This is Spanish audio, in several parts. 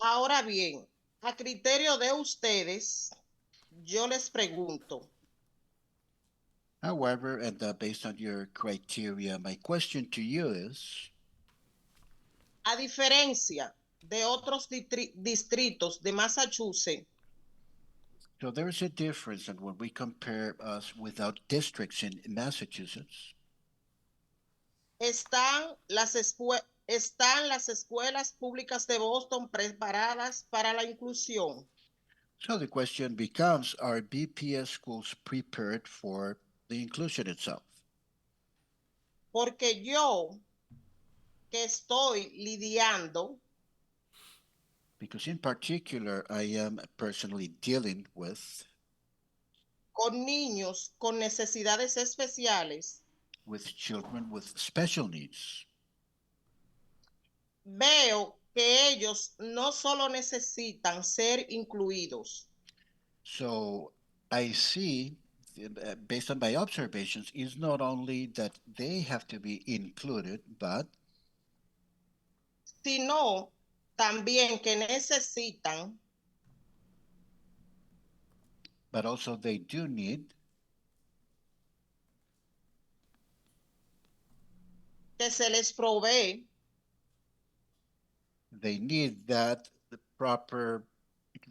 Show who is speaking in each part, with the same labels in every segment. Speaker 1: Ahora bien, a criterio de ustedes, yo les pregunto,
Speaker 2: However, and uh, based on your criteria, my question to you is,
Speaker 1: a diferencia de otros distri- distritos de Massachusetts,
Speaker 2: so there is a difference and when we compare us without districts in Massachusetts,
Speaker 1: están las, escue- están las escuelas públicas de Boston preparadas para la inclusión.
Speaker 2: so the question becomes, are BPS schools prepared for the inclusion itself?
Speaker 1: Porque yo, que estoy lidiando
Speaker 2: Because in particular, I am personally dealing with,
Speaker 1: con niños con necesidades especiales,
Speaker 2: with children with special needs.
Speaker 1: veo que ellos no solo necesitan ser incluidos,
Speaker 2: So I see, uh, based on my observations, is not only that they have to be included, but
Speaker 1: sino también que necesitan
Speaker 2: but also they do need
Speaker 1: que se les provee
Speaker 2: they need that the proper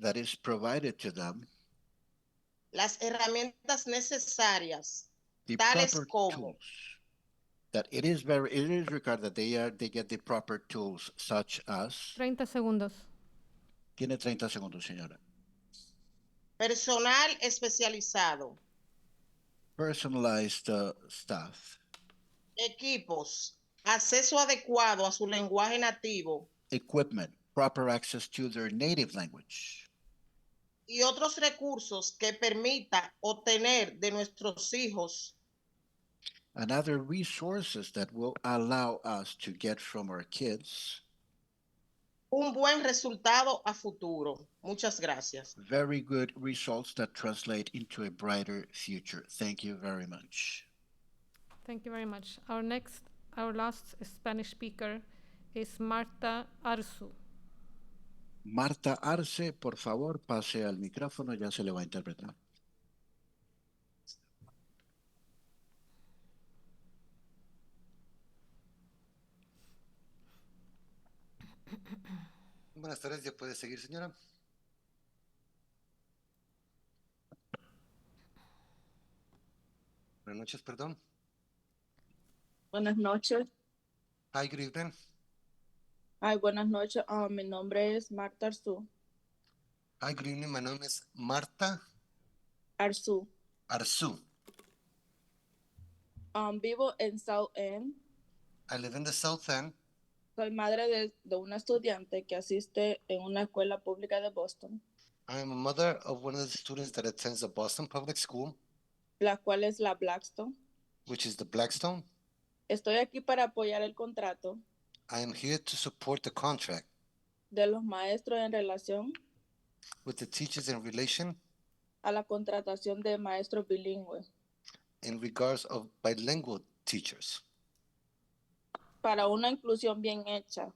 Speaker 2: that is provided to them
Speaker 1: las herramientas necesarias
Speaker 2: the
Speaker 1: Tales
Speaker 2: proper
Speaker 1: como-
Speaker 2: tools that it is very it is required that they are they get the proper tools such as
Speaker 3: 30 segundos.
Speaker 2: tiene 30 segundos señora
Speaker 1: personal especializado,
Speaker 2: personalized uh, staff
Speaker 1: equipos, acceso adecuado a su lenguaje nativo
Speaker 2: equipment proper access to their native language
Speaker 1: y otros recursos que permita obtener de nuestros hijos
Speaker 2: and other resources that will allow us to get from our kids
Speaker 1: un buen resultado a futuro. Muchas gracias.
Speaker 2: very good results that translate into a brighter future. Thank you very much.
Speaker 3: Thank you very much. Our next, our last Spanish speaker is Marta Arzu.
Speaker 2: Marta Arce, por favor, pase al micrófono, ya se le va a interpretar.
Speaker 4: Buenas tardes, ya puede seguir, señora. Buenas noches, perdón.
Speaker 5: Buenas noches.
Speaker 4: Hi, good evening.
Speaker 5: Ay, buenas noches. Ah, mi nombre es Marta Arzu.
Speaker 4: Hi, good evening. My name is Marta
Speaker 5: Arzu.
Speaker 4: Arzu.
Speaker 5: Um, vivo en South End.
Speaker 4: I live in the South End.
Speaker 5: Soy madre de, de una estudiante que asiste en una escuela pública de Boston,
Speaker 4: I am a mother of one of the students that attends the Boston Public School,
Speaker 5: la cual es la Blackstone.
Speaker 4: which is the Blackstone.
Speaker 5: Estoy aquí para apoyar el contrato
Speaker 4: I am here to support the contract
Speaker 5: de los maestros en relación
Speaker 4: with the teachers in relation
Speaker 5: a la contratación de maestros bilingües
Speaker 4: in regards of bilingual teachers
Speaker 5: para una inclusión bien hecha.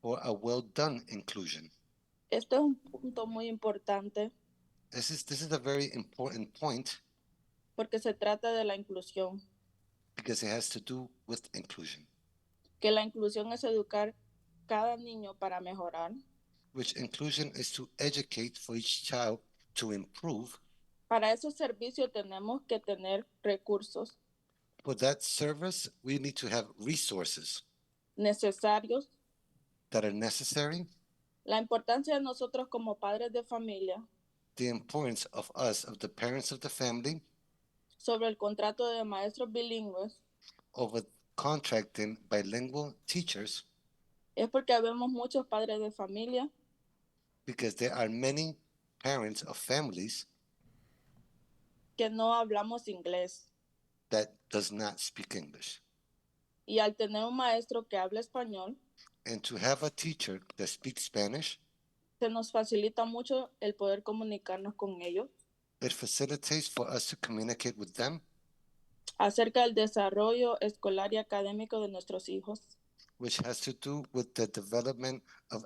Speaker 4: for a well-done inclusion.
Speaker 5: Este es un punto muy importante
Speaker 4: This is this is a very important point
Speaker 5: porque se trata de la inclusión,
Speaker 4: because it has to do with inclusion,
Speaker 5: que la inclusión es educar cada niño para mejorar.
Speaker 4: which inclusion is to educate for each child to improve.
Speaker 5: Para esos servicios tenemos que tener recursos
Speaker 4: For that service, we need to have resources
Speaker 5: necesarios.
Speaker 4: that are necessary.
Speaker 5: La importancia de nosotros como padres de familia
Speaker 4: The importance of us, of the parents of the family,
Speaker 5: sobre el contrato de maestros bilingües
Speaker 4: over contracting bilingual teachers,
Speaker 5: es porque vemos muchos padres de familia
Speaker 4: because there are many parents of families
Speaker 5: que no hablamos inglés.
Speaker 4: that does not speak English.
Speaker 5: Y al tener un maestro que habla español,
Speaker 4: And to have a teacher that speaks Spanish,
Speaker 5: se nos facilita mucho el poder comunicarnos con ellos
Speaker 4: it facilitates for us to communicate with them
Speaker 5: acerca del desarrollo escolar y académico de nuestros hijos.
Speaker 4: which has to do with the development of